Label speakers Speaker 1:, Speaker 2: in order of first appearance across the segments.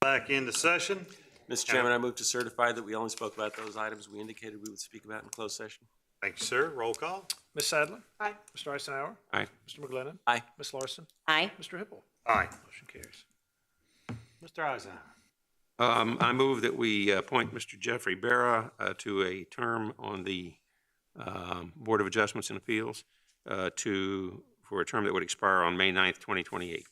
Speaker 1: back into session.
Speaker 2: Mr. Chairman, I move to certify that we only spoke about those items we indicated we would speak about in closed session.
Speaker 1: Thank you, sir. Roll call.
Speaker 3: Ms. Sadler?
Speaker 4: Aye.
Speaker 3: Mr. Eisenhower?
Speaker 2: Aye.
Speaker 3: Mr. McGlinnan?
Speaker 2: Aye.
Speaker 3: Ms. Larson?
Speaker 4: Aye.
Speaker 3: Mr. Hippel?
Speaker 1: Aye.
Speaker 3: Motion carries.
Speaker 1: Mr. Eisenhower.
Speaker 5: Um, I move that we appoint Mr. Jeffrey Barra, uh, to a term on the, um, Board of Adjustments and Appeals, uh, to, for a term that would expire on May 9th, twenty twenty-eight.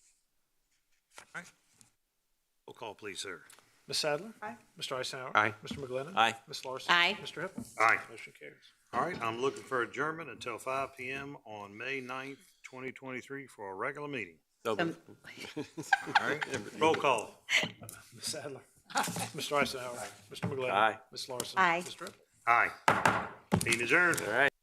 Speaker 1: Roll call, please, sir.
Speaker 3: Ms. Sadler?
Speaker 4: Aye.
Speaker 3: Mr. Eisenhower?
Speaker 5: Aye.
Speaker 3: Mr. McGlinnan?
Speaker 2: Aye.
Speaker 3: Ms. Larson?
Speaker 4: Aye.
Speaker 3: Mr. Hippel?
Speaker 1: Aye.
Speaker 3: Motion carries.
Speaker 1: All right, I'm looking for adjournment until five PM on May 9th, twenty twenty-three for a regular meeting.
Speaker 2: So
Speaker 4: Um,
Speaker 1: All right, roll call.
Speaker 3: Ms. Sadler? Mr. Eisenhower? Mr. McGlinnan?
Speaker 2: Aye.
Speaker 3: Ms. Larson?
Speaker 4: Aye.
Speaker 3: Mr. Hippel?
Speaker 1: Aye. Meeting adjourned.
Speaker 2: All right.